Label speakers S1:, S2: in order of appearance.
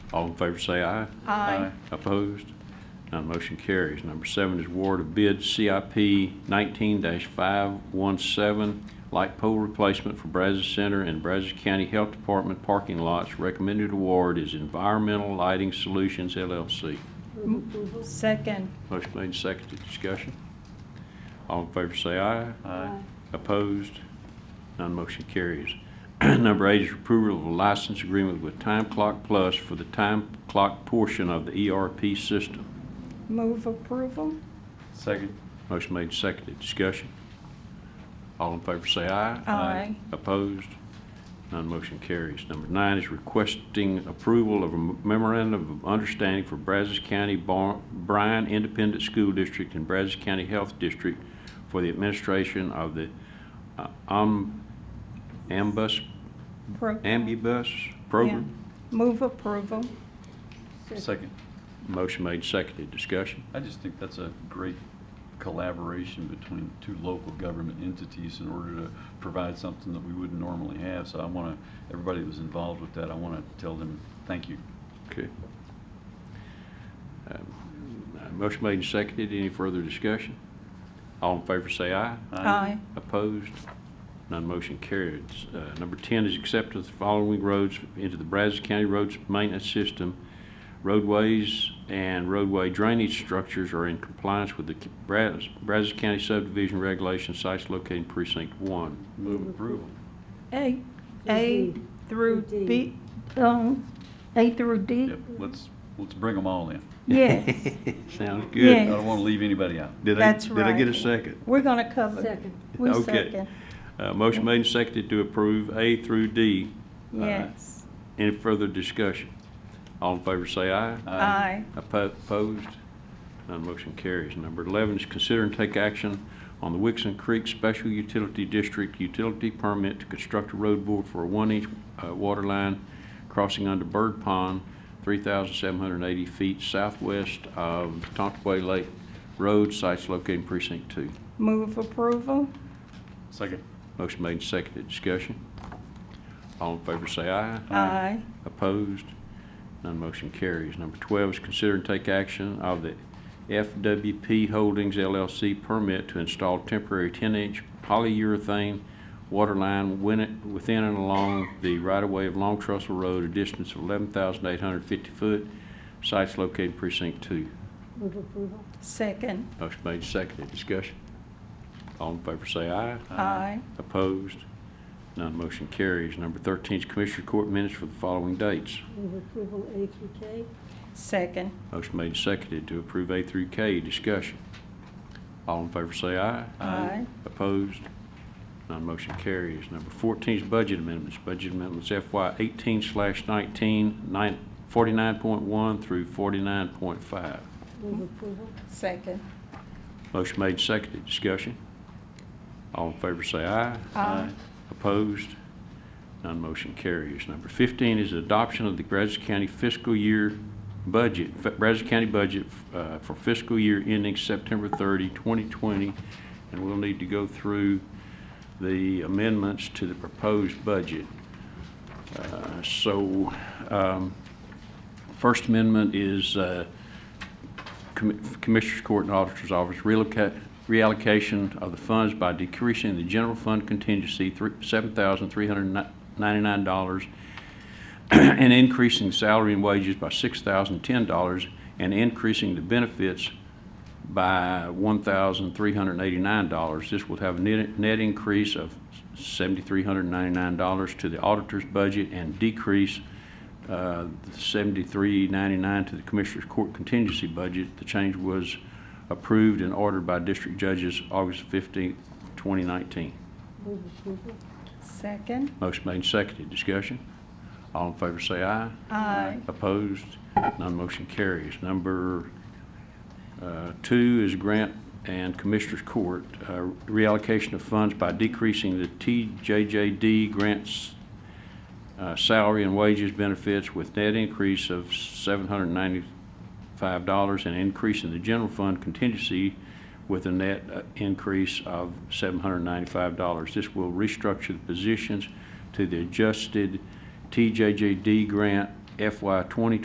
S1: All in favor say aye.
S2: Aye.
S1: Opposed? None motion carries. Number seven is award of bid CIP 19-517, light pole replacement for Brazos Center and Brazos County Health Department parking lots. Recommended award is Environmental Lighting Solutions LLC.
S2: Second.
S1: Motion made, seconded, discussion. All in favor say aye.
S3: Aye.
S1: Opposed? None motion carries. Number eight is approval of a license agreement with Time Clock Plus for the time clock portion of the ERP system.
S2: Move approval.
S3: Second.
S1: Motion made, seconded, discussion. All in favor say aye.
S2: Aye.
S1: Opposed? None motion carries. Number nine is requesting approval of a memorandum of understanding for Brazos County Bar- Bryan Independent School District and Brazos County Health District for the administration of the uh, um, ambus,
S2: Pro-
S1: ambibus
S2: Yeah.
S1: program.
S2: Move approval.
S3: Second.
S1: Motion made, seconded. Discussion.
S3: I just think that's a great collaboration between two local government entities in order to provide something that we wouldn't normally have. So I want to, everybody that was involved with that, I want to tell them, thank you.
S1: Okay. Um, uh, Motion made and seconded. Any further discussion? All in favor say aye.
S2: Aye.
S1: Opposed? None motion carries. Uh, Number 10 is accept the following roads into the Brazos County Roads Maintenance System. Roadways and roadway drainage structures are in compliance with the Brazos Brazos County subdivision regulations, sites located in precinct 1.
S3: Move approval.
S2: A, A
S4: D.
S2: through
S4: D.
S2: B, um, A through D?
S3: Yep, let's, let's bring them all in.
S2: Yes.
S1: Sounds good.
S3: I
S2: Yeah.
S3: don't want to leave anybody out.
S1: Did I-
S2: That's
S1: Did I get a
S2: right.
S1: second?
S2: We're going to cover.
S4: Second.
S2: We
S1: Okay.
S2: second.
S1: Uh, Motion made and seconded to approve A through D. Uh,
S2: Yes.
S1: Any further discussion? All in favor say aye.
S2: Aye.
S1: Oppo- Opposed? None motion carries. Number 11 is consider and take action on the Wixon Creek Special Utility District Utility Permit to construct a road board for a one-inch uh, water line crossing under Bird Pond, 3,780 feet southwest of Tontaway Lake Road, sites located in precinct two.
S2: Move approval.
S3: Second.
S1: Motion made and seconded. Discussion? All in favor say aye.
S2: Aye.
S1: Opposed? None motion carries. Number 12 is consider and take action of the FWP Holdings LLC permit to install temporary 10-inch polyurethane water line win- within and along the right-of-way of Long Trussell Road, a distance of 11,850 foot. Site's located precinct 2.
S4: Move approval.
S2: Second.
S1: Motion made, seconded. Discussion. All in favor say aye.
S2: Aye.
S1: Opposed? None motion carries. Number 13 is Commissioner Court minutes for the following dates.
S4: Move approval A through K.
S2: Second.
S1: Motion made and seconded to approve A through K. Discussion. All in favor say aye.
S2: Aye.
S1: Opposed? None motion carries. Number 14 is budget amendments. Budget amendments FY 18 slash 19, nine- 49.1 through 49.5.
S4: Move approval.
S2: Second.
S1: Motion made and seconded. Discussion. All in favor say aye.
S2: Aye.
S1: Opposed? None motion carries. Number 15 is adoption of the Brazos County fiscal year budget, F- Brazos County budget uh, for fiscal year ending September 30, 2020, and we'll need to go through the amendments to the proposed budget. Uh, So, um, First Amendment is uh, Commi- Commissioners Court and Auditor's Office reallocate, reallocation of the funds by decreasing the general fund contingency thr- $7,399 and increasing salary and wages by $6,010 and increasing the benefits by $1,389. This will have a net net increase of $7,399 to the auditor's budget and decrease uh, $73.99 to the Commissioners Court contingency budget. The change was approved and ordered by district judges August 15, 2019.
S4: Move approval.
S2: Second.
S1: Motion made and seconded. Discussion? All in favor say aye.
S2: Aye.
S1: Opposed? None motion carries. Number uh, two is grant and Commissioners Court, uh, reallocation of funds by decreasing the TJJD grants uh, salary and wages benefits with net increase of $795 and increasing the general fund contingency with a net uh, increase of $795. This will restructure the positions to the adjusted TJJD grant FY 2020